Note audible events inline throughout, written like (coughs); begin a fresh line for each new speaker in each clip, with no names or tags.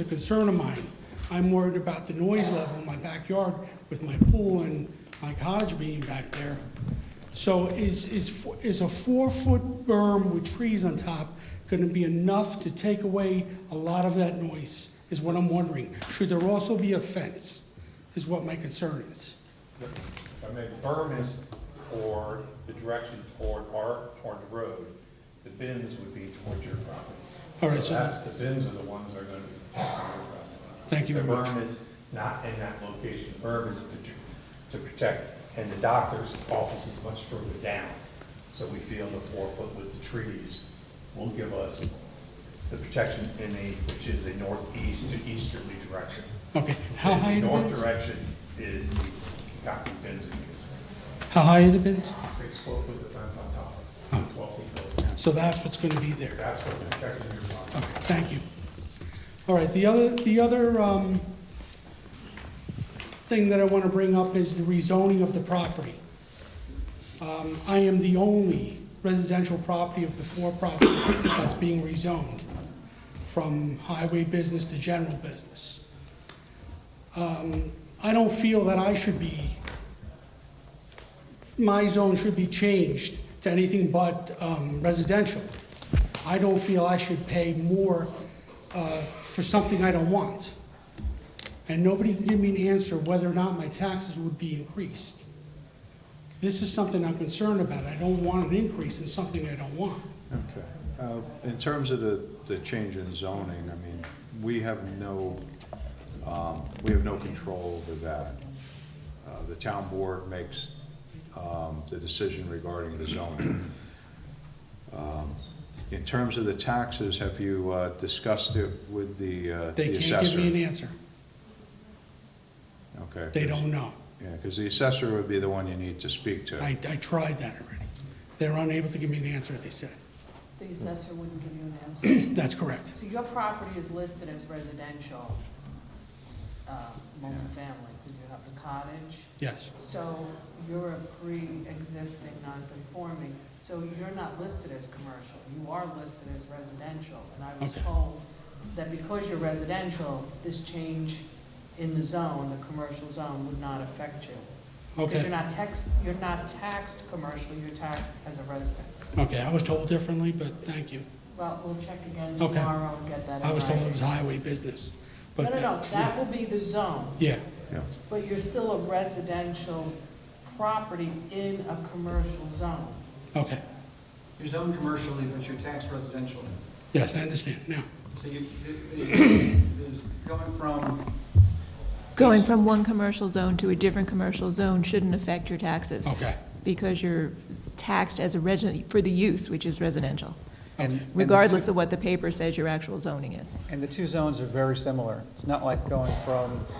a concern of mine. I'm worried about the noise level in my backyard with my pool and my cottage being back there. So is, is, fo- is a four-foot berm with trees on top gonna be enough to take away a lot of that noise, is what I'm wondering. Should there also be a fence, is what my concern is.
I mean, berm is toward, the direction toward our, toward the road. The bins would be toward your property.
All right, so-
That's, the bins are the ones that are gonna be toward your property.
Thank you very
The
much.
berm is not in that location. The berm is to, to protect, and the doctor's office is much further down. So we feel the four foot with the trees will give us the protection in a, which is a northeast to easterly direction.
Okay, how high are the
North
bins?
direction is the concrete bins in use.
How high are the bins?
six foot with the fence on top of
Oh.
it, twelve feet built.
So that's what's gonna be there.
That's what the protection of your property.
Okay, thank you. All right, the other, the other um, thing that I want to bring up is the rezoning of the property. Um, I am the only residential property of the four properties that's being rezoned, from highway business to general business. Um, I don't feel that I should be, my zone should be changed to anything but um, residential. I don't feel I should pay more uh, for something I don't want. And nobody can give me an answer whether or not my taxes would be increased. This is something I'm concerned about. I don't want an increase in something I don't want.
Okay. Uh, In terms of the, the change in zoning, I mean, we have no, um, we have no control over that. Uh, The town board makes um, the decision regarding the zoning. Um, In terms of the taxes, have you uh, discussed it with the uh, the
They
assessor?
can't give me an answer.
Okay.
They don't know.
Yeah, because the assessor would be the one you need to speak to.
I, I tried that already. They're unable to give me an answer, they said. (clears throat)
The assessor wouldn't give you an
(coughs)
answer.
That's correct.
So your property is listed as residential, uh, multifamily, because you have the cottage.
Yes,
So you're a pre-existing non-conforming, so you're not listed as commercial. You are listed as residential. And I was
Okay.
told that because you're residential, this change in the zone, the commercial zone, would not affect you. Because you're
okay.
not taxed, you're not taxed commercial, you're taxed as a residence.
Okay, I was told differently, but thank you.
Well, we'll check again
Okay.
tomorrow and get that in
I was told it
writing.
was highway business,
No,
but.
no, no, that will be the zone,
Yeah,
Yeah.
but you're still a residential property in a commercial zone.
okay.
You're zoned commercially, but you're taxed residential.
Yes, I understand now.
So you, it- it- it's going from,
Going from one commercial zone to a different commercial zone shouldn't affect your taxes.
Okay.
Because you're taxed as a resident, for the use, which is residential,
and- and the two-
regardless of what the paper says your actual zoning is.
And the two zones are very similar. It's not like going from HB,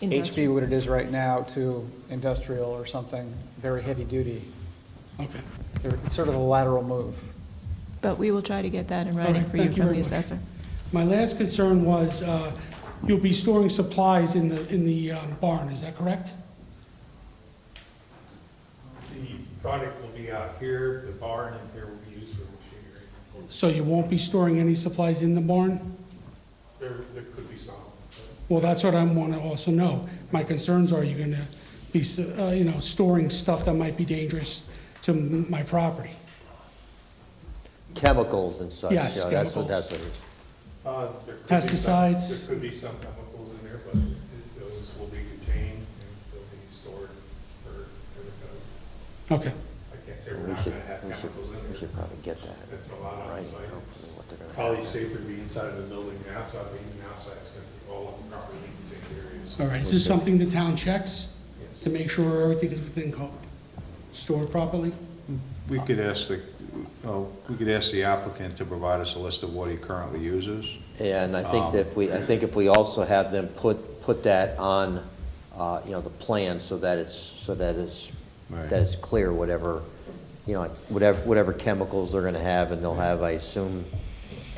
Industrial.
what it is right now, to industrial or something very heavy duty.
Okay.
They're- It's sort of a lateral move.
But we will try to get that in
right,
writing for you
thank you
from
very
the
much.
assessor.
My last concern was, uh, you'll be storing supplies in the, in the um, barn, is that correct?
The product will be out here, the barn in here will be used for machinery.
So you won't be storing any supplies in the barn?
There, there could be some.
Well, that's what I want to also know. My concerns are you going to be, s- uh, you know, storing stuff that might be dangerous to m- my property?
chemicals and such.
Yes,
you know, that's
chemicals.
what- That's what it is.
Uh, there could be some-
Pesticides.
There could be some chemicals in there, but it- those will be contained and they'll be stored for, for the code.
Okay,
I can't say we're
We
not
should,
gonna have
we should, we
chemicals in
should
there.
probably get that.
That's a lot on
Right,
site.
hopefully
It's
what they're gonna
Probably
have.
safer to be inside of the building than outside, but even outside is gonna be all properly contained areas.
all right. Is this something the town checks
Yes.
to make sure everything is within code? Stored properly?
We could ask the, uh, we could ask the applicant to provide us a list of what he currently uses.
And I think
Um,
that if we, I think if we also have them put, put that on, uh, you know, the plan so that it's, so that it's,
Right.
that it's clear whatever, you know, whatever, whatever chemicals they're gonna have and they'll have, I assume,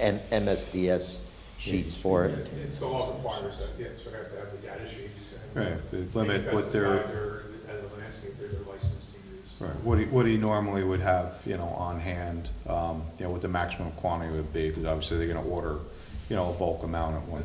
M- MSDS sheets for it.
It's the law requires that, yes, we have to have the data sheets. and
Right, they limit what they're-
pesticides are, As a landscaper, they're licensed to use.
Right, what he, what he normally would have, you know, on hand, um, you know, what the maximum quantity would be, because obviously they're gonna order you know, a bulk amount at one